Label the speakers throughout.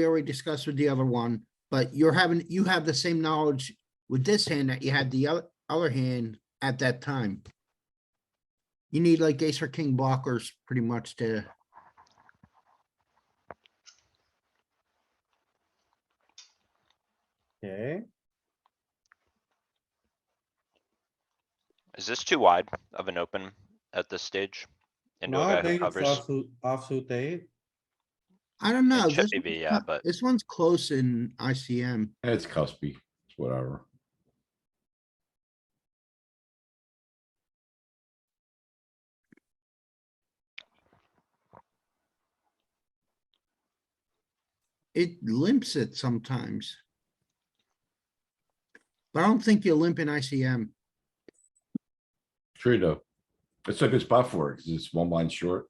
Speaker 1: we already discussed with the other one, but you're having, you have the same knowledge with this hand that you had the other, other hand at that time. You need like ace or king blockers pretty much to,
Speaker 2: Okay,
Speaker 3: Is this too wide of an open at this stage? Into
Speaker 2: no,
Speaker 3: a
Speaker 2: I
Speaker 3: guy who
Speaker 2: think it's
Speaker 3: covers?
Speaker 2: offsuit, offsuit eight.
Speaker 1: I don't know.
Speaker 3: It should
Speaker 1: this
Speaker 3: be,
Speaker 1: one's
Speaker 3: yeah,
Speaker 1: not-
Speaker 3: but-
Speaker 1: This one's close in ICM.
Speaker 4: It's cuspy, it's whatever.
Speaker 1: It limps it sometimes. But I don't think you limp in ICM.
Speaker 4: True though. It's a good spot for it, cause it's one line short.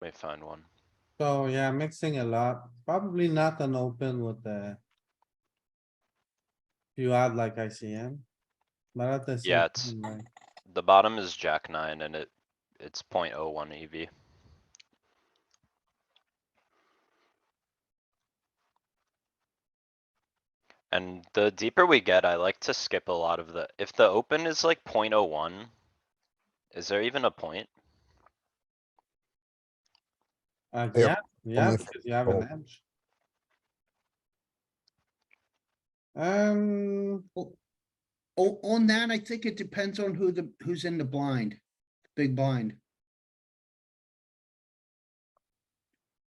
Speaker 3: Let me find one.
Speaker 2: So yeah, mixing a lot, probably not an open with the. You add like ICM. But at the. same
Speaker 3: Yeah, it's-
Speaker 2: time, like,
Speaker 3: The bottom is jack nine and it, it's point oh one EV. And the deeper we get, I like to skip a lot of the, if the open is like point oh one, is there even a point?
Speaker 2: Uh,
Speaker 5: Yeah,
Speaker 2: yeah, yeah,
Speaker 5: if
Speaker 2: because you have an edge. Um,
Speaker 1: O- Oh, on that, I think it depends on who the, who's in the blind, big blind.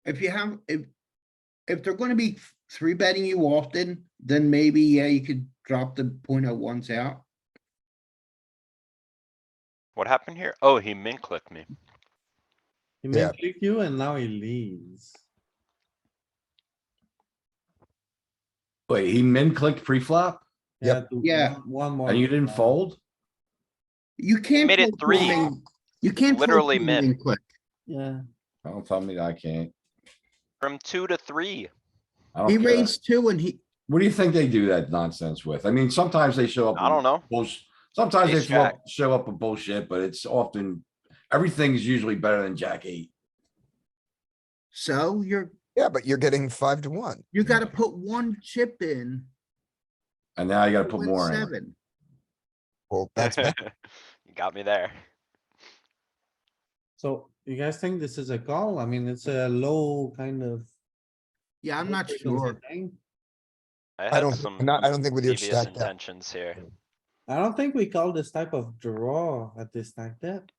Speaker 1: If you have, if, if they're gonna be three betting you often, then maybe, yeah, you could drop the point oh ones out.
Speaker 3: What happened here? Oh, he min clicked me.
Speaker 2: he may
Speaker 5: Yeah.
Speaker 2: click you and now he leaves.
Speaker 4: Wait, he min clicked pre-flop
Speaker 2: Yeah.
Speaker 5: Yep.
Speaker 2: to
Speaker 1: Yeah.
Speaker 2: one- One more.
Speaker 4: and you didn't
Speaker 2: round.
Speaker 4: fold?
Speaker 1: You can't.
Speaker 3: Made it
Speaker 1: fold
Speaker 3: three.
Speaker 1: min- You can't. fold
Speaker 3: Literally
Speaker 1: min
Speaker 3: min.
Speaker 1: quick.
Speaker 2: Yeah,
Speaker 4: Don't tell me I can't.
Speaker 3: From two to three.
Speaker 4: I don't
Speaker 1: He
Speaker 4: care.
Speaker 1: raised two and he,
Speaker 4: What do you think they do that nonsense with? I mean, sometimes they show up.
Speaker 3: I don't
Speaker 4: with
Speaker 3: know.
Speaker 4: bullsh- Sometimes they
Speaker 3: Ace
Speaker 4: show up- show up with bullshit, but it's often, everything's usually better than jack eight.
Speaker 1: so you're,
Speaker 5: Yeah, but you're getting five to one.
Speaker 1: you gotta
Speaker 4: Mm.
Speaker 1: put one chip in.
Speaker 4: And now you gotta
Speaker 1: to
Speaker 4: put
Speaker 1: win
Speaker 4: more in.
Speaker 1: Seven.
Speaker 5: Well, that's bad.
Speaker 3: You got me there.
Speaker 2: so you guys think this is a call? I mean, it's a low kind of.
Speaker 1: Yeah, I'm
Speaker 2: low
Speaker 1: not
Speaker 2: frequency
Speaker 1: sure.
Speaker 2: thing.
Speaker 3: I
Speaker 5: I
Speaker 3: had
Speaker 5: don't,
Speaker 3: some
Speaker 5: not, I don't think with your
Speaker 3: devious
Speaker 5: stack depth,
Speaker 3: intentions here.
Speaker 2: I don't think we call this type of draw at this stack depth.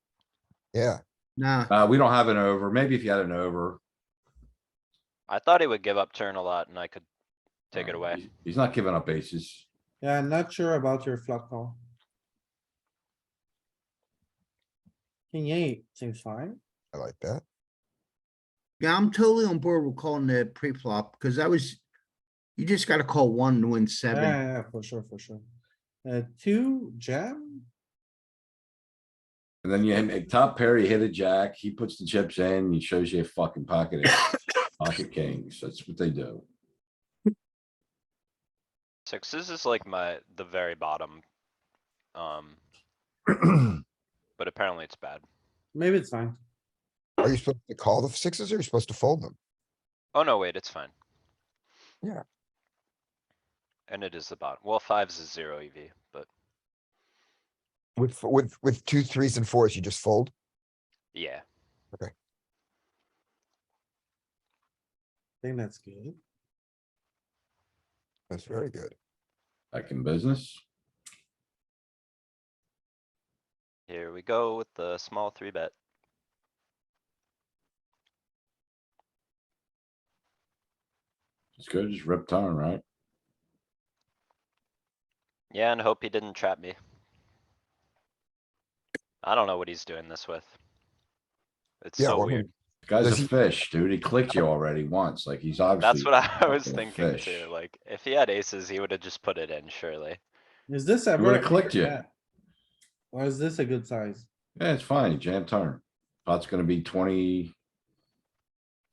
Speaker 5: yeah,
Speaker 1: Nah,
Speaker 4: Uh, we don't have an over. Maybe if you had an over.
Speaker 3: I thought he would give up turn a lot and I could take it
Speaker 4: uh,
Speaker 3: away.
Speaker 4: he's- He's not giving up aces.
Speaker 2: Yeah, I'm not sure about your flop call. King eight seems fine.
Speaker 5: I like that.
Speaker 1: yeah, I'm totally on board with calling the pre-flop, because that was, you just gotta call one to win
Speaker 2: Yeah,
Speaker 1: seven.
Speaker 2: Yeah, yeah, for sure, for sure. Uh, two jam,
Speaker 4: And then you hit top pair, you hit a jack, he puts the chips in, he shows you a fucking pocket. ace, Pocket kings, that's what they do.
Speaker 3: Sixes is like my, the very bottom. Um, but apparently it's bad.
Speaker 2: maybe it's fine.
Speaker 5: Are you supposed to call the sixes or are you supposed to fold them?
Speaker 3: Oh, no, wait, it's fine.
Speaker 5: Yeah.
Speaker 3: And it is the bottom. Well, fives is zero EV, but
Speaker 5: With, f- with, with two threes and fours, you just fold?
Speaker 3: yeah,
Speaker 2: I think that's good.
Speaker 5: That's very good.
Speaker 4: Back in business.
Speaker 3: here we go with the small three bet.
Speaker 4: It's good, just rip turn, right?
Speaker 3: Yeah, and hope he didn't trap me. I don't know what he's doing this with. It's
Speaker 5: Yeah,
Speaker 3: so
Speaker 5: well,
Speaker 3: weird.
Speaker 4: Guy's
Speaker 5: Does
Speaker 4: a
Speaker 5: he-
Speaker 4: fish, dude. He clicked you already once, like he's
Speaker 3: That's
Speaker 4: obviously,
Speaker 3: what I was
Speaker 4: fucking
Speaker 3: thinking
Speaker 4: fish.
Speaker 3: too. Like, if he had aces, he would have just put it in surely.
Speaker 2: Is this ever?
Speaker 4: would've
Speaker 2: a
Speaker 4: clicked
Speaker 2: bigger
Speaker 4: you.
Speaker 2: bet? Or is this a good size?
Speaker 4: yeah, it's fine, jam turn. Pot's gonna be twenty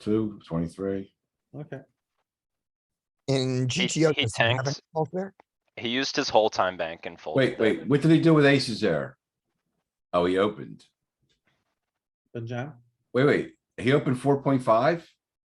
Speaker 4: two, twenty-three.
Speaker 2: Okay,
Speaker 5: In GTO.
Speaker 3: he
Speaker 5: does he have any
Speaker 3: tanks-
Speaker 5: calls there?
Speaker 3: He used his whole time bank and folded.
Speaker 4: Wait,
Speaker 3: the-
Speaker 4: wait, what did he do with aces there? Oh, he opened.
Speaker 2: good jam.
Speaker 4: Wait, wait, he opened four point five?